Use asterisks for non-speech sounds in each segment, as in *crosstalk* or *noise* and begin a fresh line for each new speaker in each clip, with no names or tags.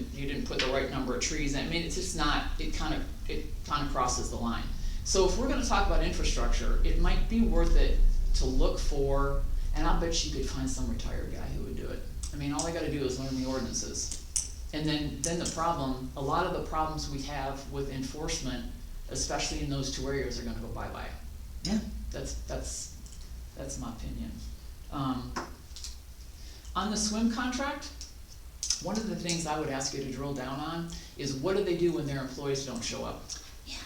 didn't put the right number of trees in, I mean, it's just not, it kind of, it kind of crosses the line. So if we're gonna talk about infrastructure, it might be worth it to look for, and I bet you could find some retired guy who would do it. I mean, all they gotta do is learn the ordinances. And then, then the problem, a lot of the problems we have with enforcement, especially in those two areas, are gonna go bye-bye.
Yeah.
That's, that's, that's my opinion. Um, on the swim contract, one of the things I would ask you to drill down on is what do they do when their employees don't show up?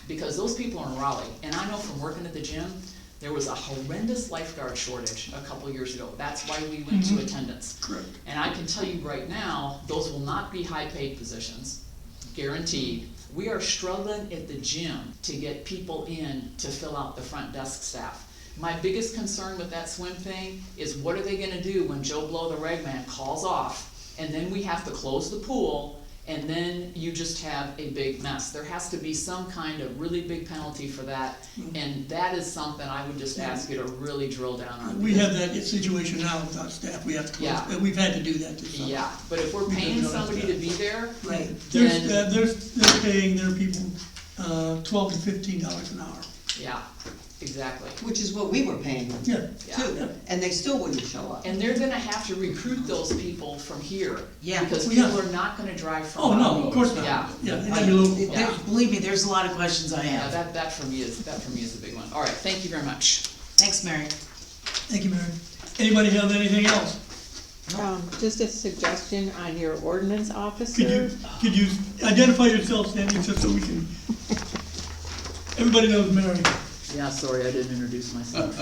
Because those people are in Raleigh, and I know from working at the gym, there was a horrendous lifeguard shortage a couple years ago. That's why we went to attendance.
Correct.
And I can tell you right now, those will not be high-paid positions, guaranteed. We are struggling at the gym to get people in to fill out the front desk staff. My biggest concern with that swim thing is what are they gonna do when Joe Blow, the reg man, calls off? And then we have to close the pool, and then you just have a big mess. There has to be some kind of really big penalty for that, and that is something I would just ask you to really drill down on.
Uh, We have that situation now with our staff, we have to close,
Yeah.
but we've had to do that this summer.
Yeah, but if we're
We
paying
don't know
somebody
that.
to be there,
Right,
Then-
there's, uh, there's, they're paying their people, uh, twelve to fifteen dollars an hour.
yeah, exactly.
Which is what we were paying them
Yeah,
Yeah.
too, and they still wouldn't show up.
And they're gonna have to recruit those people from here.
Yeah.
Because
Yeah.
people are not gonna drive from.
oh, no,
Raleigh.
of course not,
Yeah.
yeah, they
I-
need a local.
Yeah.
there- Believe me, there's a lot of questions I
Yeah,
have.
that, that for me is, that for me is a big one. All right, thank you very much.
Thanks, Mary.
thank you, Mary. Anybody have anything else?
Um, just a suggestion on your ordinance
Could you,
officer.
could you identify yourself, Sandy, just so we can, everybody knows Mary.
Yeah, sorry, I didn't introduce *laughs* myself.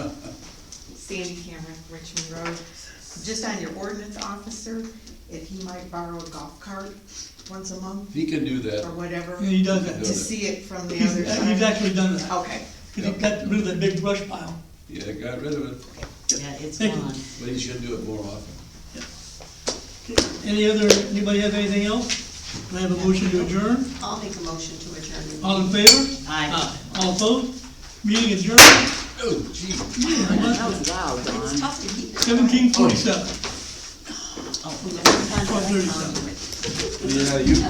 Sandy Cameron, Richmond Road. Just on your ordinance officer, if he might borrow a golf cart once a month
He can do
or
that.
whatever,
And he
to
does that.
does.
see it from
*laughs*
the
He's, uh,
other
he's
side.
actually done that,
Okay,
because he got rid of that big brush pile.
Yeah, got rid of it,
Yeah, it's
Thank you.
gone.
but he should do it more often.
Any other, anybody have anything else? Can I have a motion to adjourn?
I'll make a motion to adjourn. the
All in favor?
Aye.
Aye. All opposed? Meeting adjourned,
Oh, gee.
That was loud, Don.
It's tough to keep.
seventeen forty-seven.
Sometimes I like
Twelve thirty-seven.
conduit.
Yeah, you